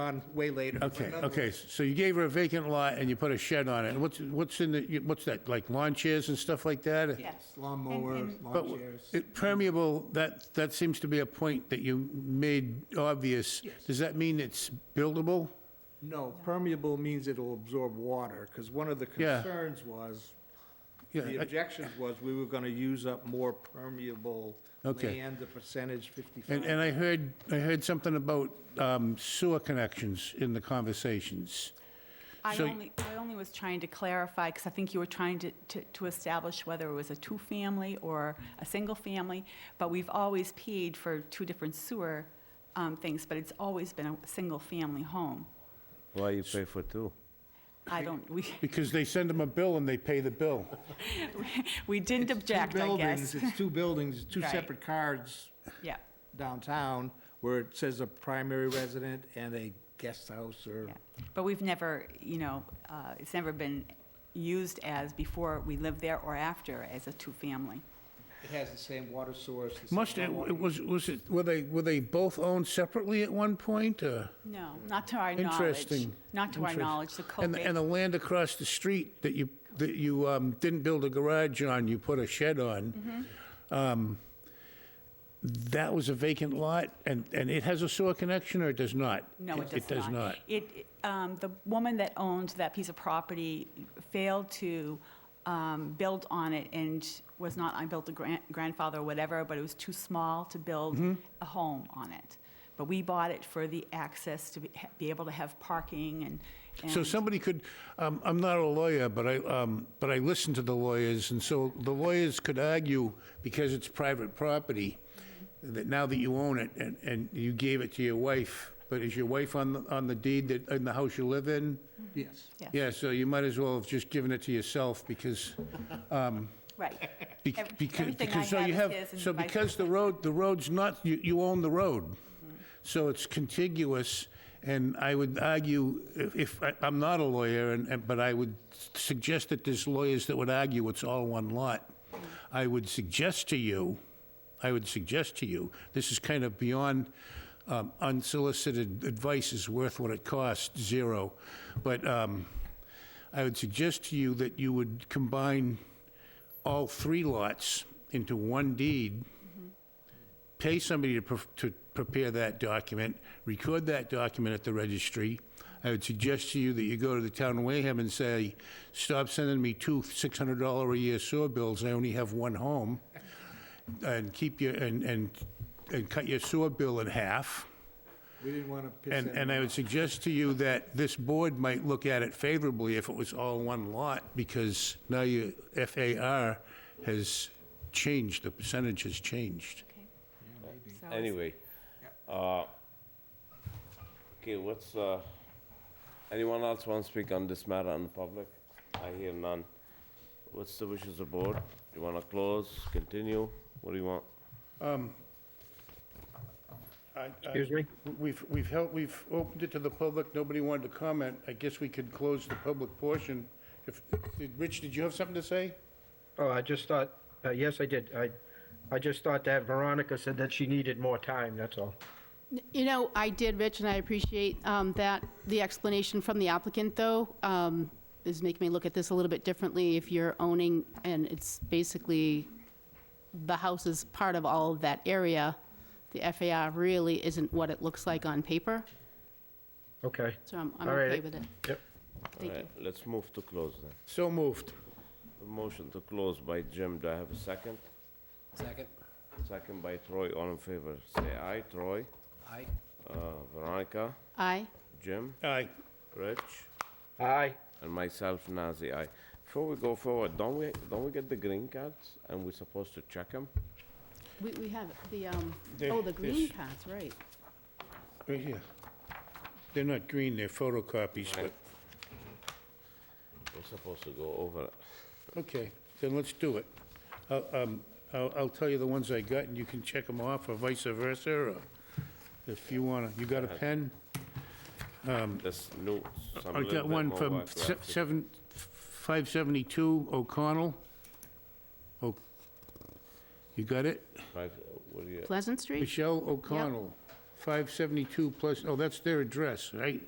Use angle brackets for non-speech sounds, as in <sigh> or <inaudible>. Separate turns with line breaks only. on way later.
Okay, okay, so you gave her a vacant lot and you put a shed on it. What's, what's in the, what's that, like lawn chairs and stuff like that?
Yes.
Lawn
And-
mowers,
and-
But
lawn chairs.
it- permeable, that, that seems to be a point that you made obvious.
Yes.
Does that mean it's buildable?
No, permeable means it'll absorb water, because one of the
Yeah.
concerns was,
Yeah,
the
I-
objections was, we were gonna use up more permeable
Okay.
land, the percentage
And, and
fifty-five.
I heard, I heard something about um, sewer connections in the conversations.
I
So-
only, I only was trying to clarify, because I think you were trying to, to- to establish whether it was a two-family or a single-family, but we've always paid for two different sewer um, things, but it's always been a single-family home.
Why you pay for two?
I don't, we,
Because they send them a bill and they pay the bill.
we didn't object, I guess.
It's
<laughs>
two buildings, two
Right.
separate cards
Yeah,
downtown, where it says a primary resident and a guest house or
yeah. But we've never, you know, uh, it's never been used as before we lived there or after as a two-family.
It has the same water source. the same
Must, it
hot water.
was, was it, were they, were they both owned separately at one point, or?
No, not to our knowledge.
Interesting.
Not to our
Interest-
knowledge, the
And,
COVID.
and the land across the street that you, that you um, didn't build a garage on, you put a shed on.
Mm-hmm.
um, That was a vacant lot, and, and it has a sewer connection, or it does not?
No, it does not.
It does not.
It, um, the woman that owned that piece of property failed to um, build on it and was not, I built a gran- grandfather or whatever, but it was too small to build
Mm-hmm.
a home on it. But we bought it for the access to be ha- be able to have parking and,
So
and
somebody could, um, I'm not a lawyer, but I, um, but I listen to the lawyers, and so the lawyers could argue, because it's private property, that now that you own it, and, and you gave it to your wife, but is your wife on, the on the deed that, in the house you live in?
Yes.
Yes.
Yeah, so you might as well have just given it to yourself, because,
right. <laughs>
bec-
Ev-
because,
everything I
because, so you
have
have,
is his and
so
vice
because the road, the road's not, you, you own the road,
Mm-hmm.
so it's contiguous, and I would argue, if- if, I- I'm not a lawyer, and, and- but I would suggest that there's lawyers that would argue it's all one lot.
Mm-hmm.
I would suggest to you, I would suggest to you, this is kind of beyond um, unsolicited advice is worth what it costs, zero, but um, I would suggest to you that you would combine all three lots into one deed, pay somebody to, pref- to prepare that document, record that document at the registry. I would suggest to you that you go to the town of Wareham and say, stop sending me two $600 a year sewer bills, I only have one home. And keep your, and, and, and cut your sewer bill in half.
We didn't want to piss
And, and
anyone
I would
off.
suggest to you that this board might look at it favorably if it was all one lot, because now your FAR has changed, the percentage has changed.
So it's-
Anyway, uh, okay, what's, uh, anyone else want to speak on this matter in public? I hear none. What's the wishes of the board? You want to close, continue? What do you want?
Excuse me? We've, we've held, we've opened it to the public, nobody wanted to comment. I guess we could close the public portion. If, did- Rich, did you have something to say?
Oh, I just thought, uh, yes, I did. I, I just thought that Veronica said that she needed more time, that's all.
You know, I did, Rich, and I appreciate um, that, the explanation from the applicant, though, um, is making me look at this a little bit differently. If you're owning, and it's basically, the house is part of all of that area, the FAR really isn't what it looks like on paper,
Okay.
so I'm I'm
All right.
okay with it.
Yep.
Thank
All
you.
right, Let's move to close then.
So moved.
A Motion to close by Jim, do I have a second? Second. Second by Troy, all in favor, say aye. Troy? Aye. Veronica?
Aye.
Jim?
Aye.
Rich?
Aye.
And myself, Nazi, aye. Before we go forward, don't we, don't we get the green cards and we're supposed to check them?
We we have the, um,
There-
oh, the green
this.
cards, right.
Right here. They're not green, they're photocopies, but,
We're supposed to go over it.
okay, then let's do it. I'll, um, I'll, I'll tell you the ones I got, and you can check them off, or vice versa, or if you wanna, you got a pen?
This new, some
I got
little bit
one
more
from
work we
se-
have to-
seven, 572 O'Connell. Oh, you got it?
Right, uh, what do you-
Pleasant Street?
Michelle O'Connell. 572 plus, oh, that's their address, right?